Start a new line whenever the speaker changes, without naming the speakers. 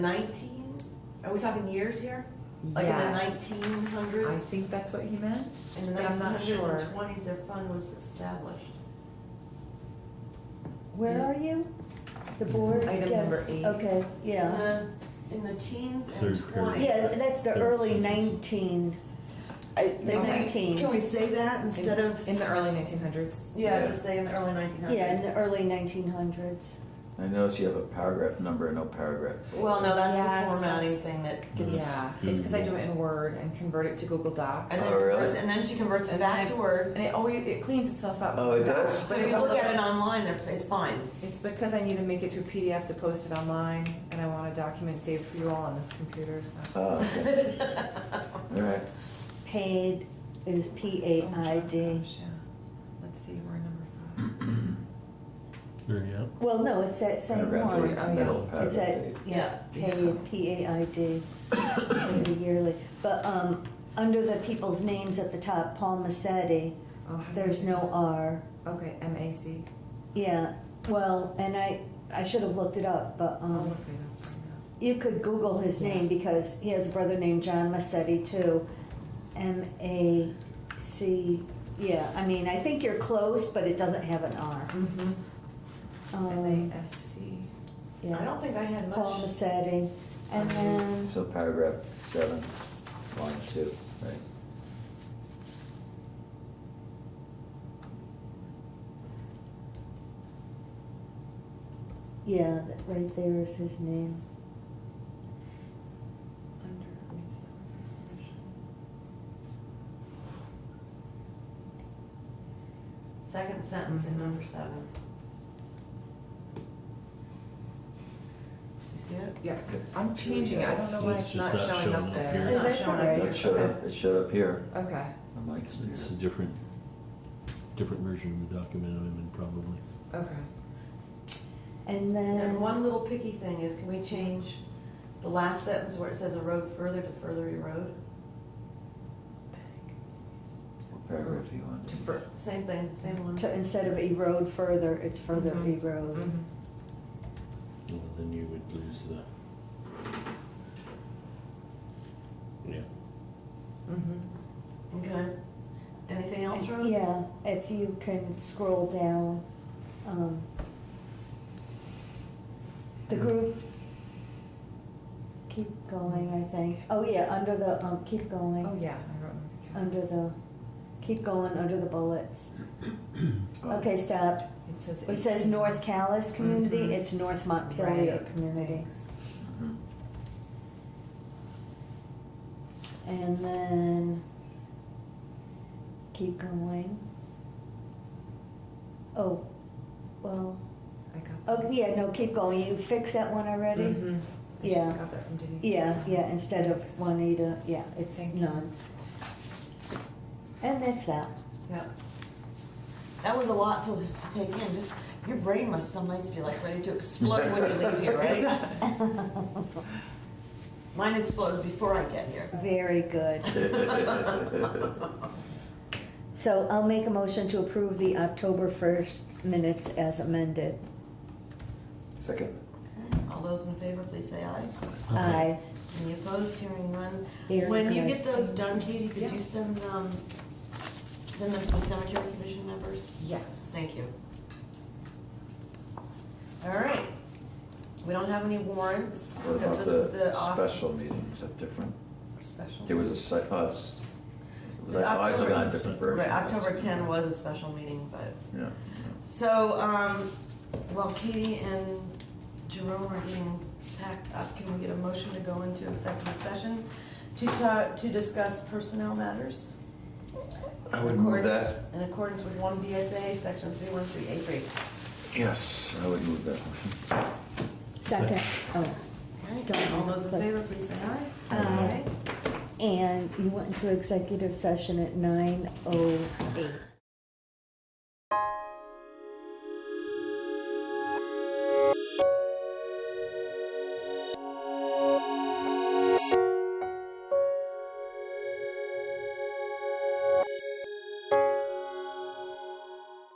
Nineteen? Are we talking years here? Like in the
Yes.
nineteen
I
hundreds?
think that's what he meant.
In the
but
nineteen
I'm not
hundreds and
sure.
twenties, their fund was established.
Where
Yeah.
are you? The board?
Item
yes,
number eight.
Okay, yeah.
Uh,
In the- In the teens and
Third period.
twenties.
Yeah, that's the
Third
early
sentence.
nineteen, the
Okay.
nineteen.
Can we say that
In-
instead of?
In the early nineteen hundreds.
Yeah, just say in the early nineteen hundreds.
Yeah, in the early nineteen hundreds.
I notice you have a paragraph number and no paragraph.
Well, no, that's
Yes,
the formatting
that's-
thing that gets.
Yeah, it's because I do it in Word and convert it to Google Docs.
And then
Oh, really?
converts- And then she converts it
And then
back
I-
to Word.
And it always, it cleans itself up.
Oh, it does?
So if you look at it online, they're- it's fine.
It's because I need to make it to a PDF to post it online, and I want a document saved for you all on this computer, so.
Oh, okay. All right.
Paid is P
Oh,
A I
gosh,
D.
yeah. Let's see, we're number five.
There you go.
Well, no, it's that same
Paragraph
one.
eight,
Oh, yeah.
middle
It's
paragraph
that,
eight.
yeah,
Yeah.
paid, P A I D, every yearly. But, um, under the people's names at the top, Paul Massetti,
Oh, how do I
there's
do
no
that?
R.
Okay, M A C.
Yeah, well, and I, I should have looked it up, but,
I'll
um,
look it up right now.
You could Google his name because he has a brother named John Massetti too. M A C. Yeah, I mean, I think you're close, but it doesn't have an R.
Mm-hmm.
Um,
M A S C.
I
yeah,
don't think I had
Paul
much.
Massetti. And then,
So paragraph seven, line two, right?
yeah, that right there is his name.
Under, make this up.
Second sentence in number seven. You see it?
Yeah, I'm changing it, I don't know why
It's
it's not
just not
showing
showing
up
up
there.
here.
It's not
That's
showing up
alright.
here.
That showed up, it showed up here.
Okay,
I'm like,
It's, it's a different, different version of the document I'm in probably.
okay.
And
And then,
one little picky thing is, can we change the last sentence where it says a road further to further erode?
What paragraph do you want?
To fur,
Same thing, same one.
to, instead of erode further, it's further
Mm-hmm.
Mhm.
erode.
mhm.
Well, then you would lose the. Yeah.
Mm-hmm.
Okay. Anything else, Rose?
Yeah, if you can scroll down. um, The group, keep going, I think. Oh, yeah, under the, um, keep
Oh,
going,
yeah, I wrote. it.
under the, keep going, under the bullets.
Oh.
Okay, stop.
It says.
It says
18.
North Callis Community,
Mhm.
it's North Montpelier
Right,
Community.
thanks.
Mhm.
And then, keep going. Oh, well,
I got.
oh, yeah, no, keep going. You fixed that one already?
Mm-hmm.
Mhm. I
Yeah.
just got that from Denise.
Yeah, yeah, instead of Juanita, yeah, it's
Thank you.
none. And that's that.
Yep. That was a lot to, to take in, just, your brain must sometimes be like ready to explode when you leave here, right? Mine explodes before I get here.
Very good. So I'll make a motion to approve the October first minutes as amended.
Second.
All those in favor, please say aye.
Aye.
Any opposed, hearing none?
Very
When you
good.
get those done, Katie, could
Yeah.
you send, um, send them to the cemetery commission members?
Yes.
Thank you. All right. We don't have any warrants.
What
because
about
this is
the
off-
special meeting? Is that different?
Special.
There was a site, oh, it's, was I, I was
October-
looking at a different version.
Right, October ten was a special meeting, but,
Yeah.
so, um, while Katie and Jerome are getting packed up, can we get a motion to go into executive session to ta to discuss personnel matters?
I would move that.
In accordance with one BSA, section three one three eight three.
Yes, I would move that.
Second, oh,
All right, all those in favor, please say aye.
Aye. and you went into executive session at nine oh eight.